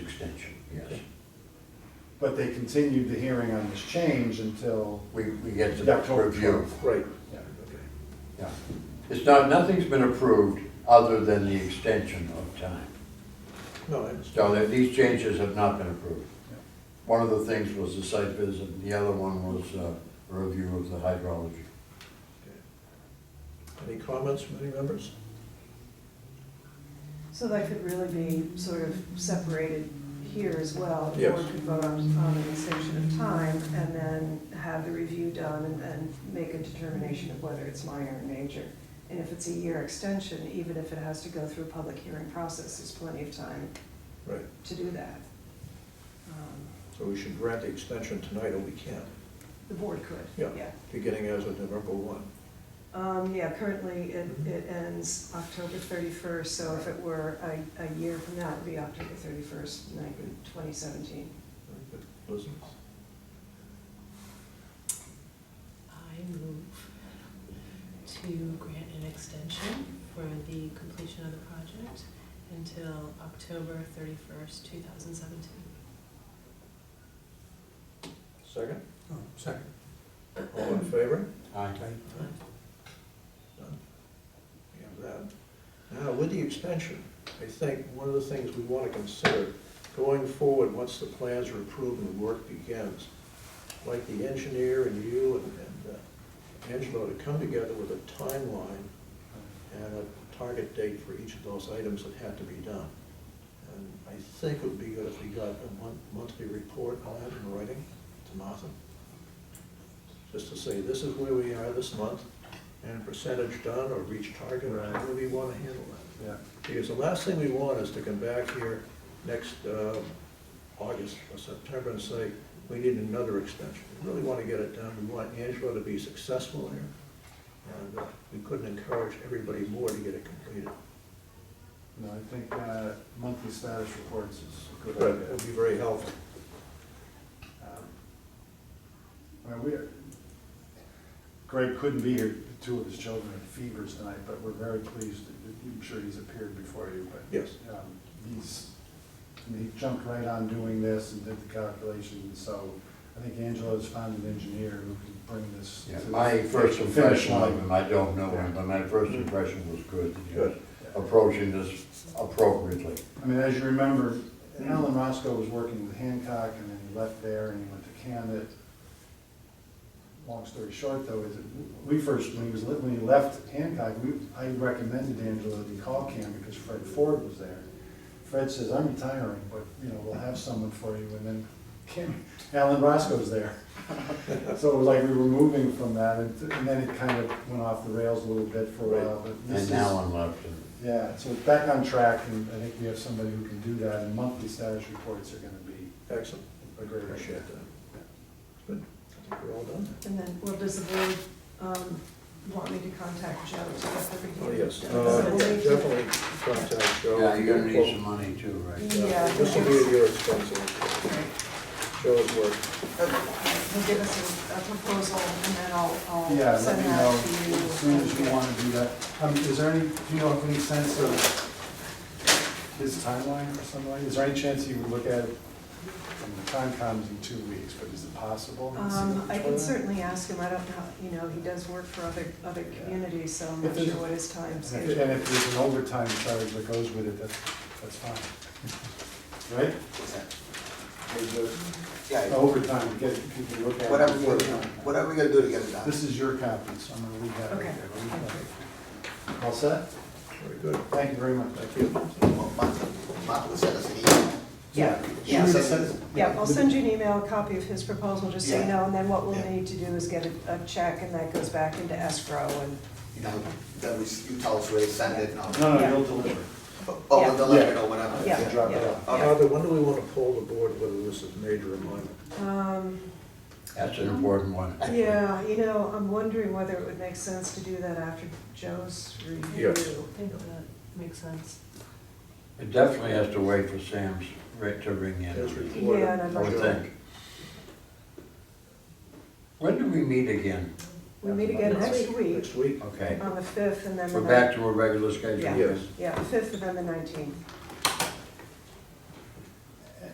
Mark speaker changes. Speaker 1: extension, yes.
Speaker 2: But they continued the hearing on this change until,
Speaker 1: We, we get to
Speaker 2: October
Speaker 1: review.
Speaker 2: 12th.
Speaker 3: Right.
Speaker 2: yeah,
Speaker 1: Yeah. It's not, nothing's been approved other than the extension of time.
Speaker 3: No, I understand.
Speaker 1: So that these changes have not been approved.
Speaker 2: Yeah.
Speaker 1: One of the things was the site visit, and the other one was uh, a review of the hydrology.
Speaker 3: Any comments from any members?
Speaker 4: So that could really be sort of separated here as well. The
Speaker 3: Yes.
Speaker 4: board could vote on, on an extension of time and then have the review done and then make a determination of whether it's minor or major. And if it's a year extension, even if it has to go through a public hearing process, there's plenty of time
Speaker 3: Right,
Speaker 4: to do that. Um,
Speaker 3: so we should grant the extension tonight, or we can't,
Speaker 4: The board could,
Speaker 3: Yeah.
Speaker 4: yeah.
Speaker 3: beginning as of November one.
Speaker 4: Um, yeah, currently it,
Speaker 3: Mm-hmm.
Speaker 4: it ends October thirty-first, so if it were a, a year from now, it would be October thirty-first, twenty seventeen.
Speaker 3: Very good. Liz?
Speaker 5: I move to grant an extension for the completion of the project until October thirty-first, two thousand seventeen.
Speaker 3: Second,
Speaker 6: Oh, Second.
Speaker 3: all in favor?
Speaker 1: Aye.
Speaker 3: Done. We have that. Now, with the extension, I think one of the things we want to consider going forward, once the plans are approved and the work begins, like the engineer and you and- and uh, Angelo to come together with a timeline and a target date for each of those items that had to be done. And I think it would be good if we got a mon- monthly report on that in writing to Martha, just to say, this is where we are this month, and percentage done or reach target, or
Speaker 2: Right.
Speaker 3: however you want to handle that.
Speaker 2: yeah.
Speaker 3: Because the last thing we want is to come back here next uh, August or September and say, we need another extension. We really want to get it done, we want Angelo to be successful here, and uh, we couldn't encourage everybody more to get it completed.
Speaker 2: No, I think uh, monthly status reports is a good
Speaker 3: That
Speaker 2: idea.
Speaker 3: would be very helpful.
Speaker 2: Um, Well, we, Greg couldn't be here, two of his children had fevers tonight, but we're very pleased, that- I'm sure he's appeared before you, but
Speaker 3: Yes,
Speaker 2: um, he's, I mean, he jumped right on doing this and did the calculations, so I think Angelo's found an engineer who can bring this.
Speaker 1: Yeah,
Speaker 2: to
Speaker 1: My
Speaker 2: the
Speaker 1: first
Speaker 2: finish
Speaker 1: impression of
Speaker 2: line. Mm-hmm.
Speaker 1: him, I don't know him, but my first impression was good. He was
Speaker 3: Good.
Speaker 1: Approaching this appropriately.
Speaker 2: I mean, as you remember, Alan Roscoe was working with Hancock, and then he left there and he went to Cammett. Long story short, though, is that we first, when he was, when he left Hancock, we, I recommended Angelo that he call Cam because Fred Ford was there. Fred says, I'm retiring, but, you know, we'll have someone for you, and then Cam, Alan Roscoe's there. So it was like we were moving from that, and and then it kind of went off the rails a little bit for a while, but
Speaker 1: And
Speaker 2: this is.
Speaker 1: now I'm left. in-
Speaker 2: Yeah, so it's back on track, and I think we have somebody who can do that, and monthly status reports are gonna be
Speaker 3: excellent,
Speaker 2: a great
Speaker 3: appreciate
Speaker 2: issue.
Speaker 3: that. Good, I think we're all done.
Speaker 4: And then, well, does the board um, want me to contact Joe to get the review?
Speaker 3: Oh, yes,
Speaker 4: done?
Speaker 3: Uh,
Speaker 4: So
Speaker 3: yeah,
Speaker 4: we'll need to-
Speaker 3: definitely contact Joe.
Speaker 1: Yeah, you're gonna need some money too, right?
Speaker 4: Yeah.
Speaker 3: This will be at your expense, Joe's work.
Speaker 4: He'll give us a- a proposal and then I'll,
Speaker 2: Yeah,
Speaker 4: I'll
Speaker 2: let
Speaker 4: send
Speaker 2: me
Speaker 4: that
Speaker 2: know
Speaker 4: to you.
Speaker 2: as soon as you wanna do that. Um, is there any, do you know, of any sense of his timeline or something like, is there any chance he would look at, it? I mean, the time comes in two weeks, but is it possible?
Speaker 4: Um, I can certainly ask him, I don't know, you know, he does work for other, other
Speaker 2: Yeah.
Speaker 4: communities, so I'm
Speaker 2: If
Speaker 4: not
Speaker 2: there's-
Speaker 4: sure what his time
Speaker 2: And if
Speaker 4: schedule
Speaker 2: and if there's an overtime charge that goes with it, that's, that's fine. Right?
Speaker 7: Yeah,
Speaker 2: Overtime, to get, you can look at. it
Speaker 7: whatever,
Speaker 2: before
Speaker 7: we-
Speaker 2: the time.
Speaker 7: whatever we gotta do to get it done.
Speaker 2: This is your copy, so I'm gonna leave that right
Speaker 4: Okay.
Speaker 2: there. All set?
Speaker 3: Very good.
Speaker 2: Thank you very much.
Speaker 3: Thank you.
Speaker 7: Well, Martha, Martha will send us an email.
Speaker 4: Yeah,
Speaker 2: She
Speaker 4: yeah.
Speaker 2: already sent us-
Speaker 4: Yeah, I'll send you an email, a copy of his proposal, just so you
Speaker 7: Yeah.
Speaker 4: know, and then what we'll
Speaker 7: Yeah.
Speaker 4: need to do is get a, a check and that goes back into escrow and,
Speaker 7: You know, then we, you tell us where to send it, and I'll,
Speaker 2: No, no,
Speaker 4: Yeah.
Speaker 2: you'll deliver.
Speaker 7: oh,
Speaker 4: Yeah.
Speaker 7: we'll deliver it or whatever.
Speaker 4: yeah,
Speaker 2: drop it
Speaker 4: yeah,
Speaker 2: off.
Speaker 4: yeah.
Speaker 3: Uh, Arthur, when do we want to poll the board whether this is major or minor?
Speaker 4: Um,
Speaker 1: That's an important one.
Speaker 4: yeah, you know, I'm wondering whether it would make sense to do that after Joe's review.
Speaker 3: Yes.
Speaker 5: I think that makes sense.
Speaker 1: It definitely has to wait for Sam's rate to ring in,
Speaker 3: As
Speaker 1: I
Speaker 3: reported.
Speaker 4: Yeah, and I'd like
Speaker 1: would think. When do we meet again?
Speaker 4: We meet again next week
Speaker 3: Next week.
Speaker 1: Okay,
Speaker 4: on the fifth and then the
Speaker 1: we're
Speaker 4: nineteenth.
Speaker 1: back to our regular schedule?
Speaker 4: Yeah.
Speaker 3: Yes.
Speaker 4: Yeah, the fifth and then the nineteenth.